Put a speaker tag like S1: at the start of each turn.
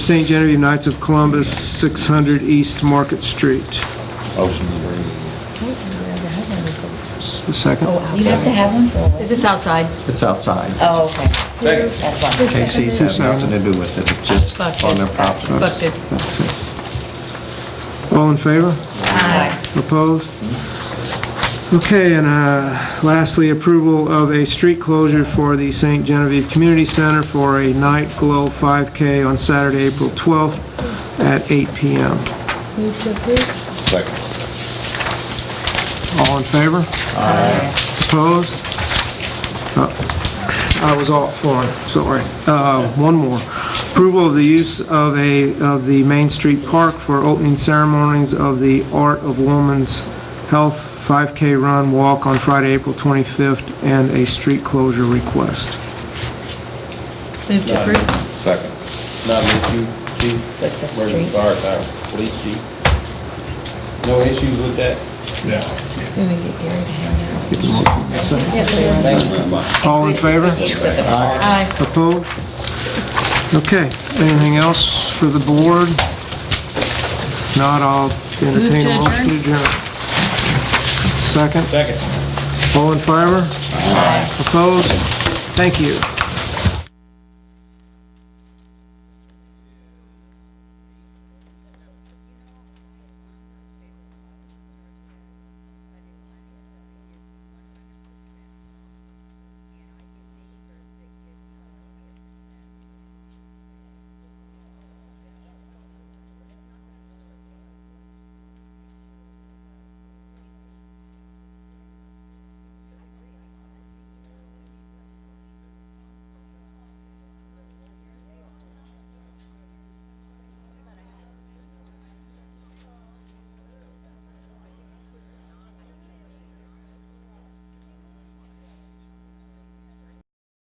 S1: St. Genevieve Knights of Columbus, 600 East Market Street.
S2: Motion to approve.
S1: The second?
S3: You have to have one?
S4: Is this outside?
S2: It's outside.
S3: Oh, okay. That's why.
S2: KC's have nothing to do with it, it's just
S4: Bucked
S2: on their
S4: it, got
S2: property.
S4: you, bucked it.
S1: That's it. All in favor? Opposed? Okay, and uh, lastly, approval of a street closure for the St. Genevieve Community Center for a Night Glow 5K on Saturday, April 12th at 8 PM.
S2: Second.
S1: All in favor? Opposed? Uh, I was off for, it, sorry. Uh, One more. Approval of the use of a, of the Main Street Park for opening ceremonies of the Art of Woman's Health 5K Run Walk on Friday, April 25th, and a street closure request.
S4: Move to approve.
S2: Second.
S5: Not me, chief, chief,
S3: With the
S5: where's the
S3: street.
S5: guard, our police chief? No issues with that?
S3: We would get Gary to hand
S1: Get the motion. Second.
S5: Thank you very much.
S1: All in favor?
S3: out.
S4: Aye.
S1: Opposed? Okay, anything else for the board? If Not, I'll entertain a motion to adjourn. Second,
S5: Second.
S1: all in favor? Opposed? Thank you.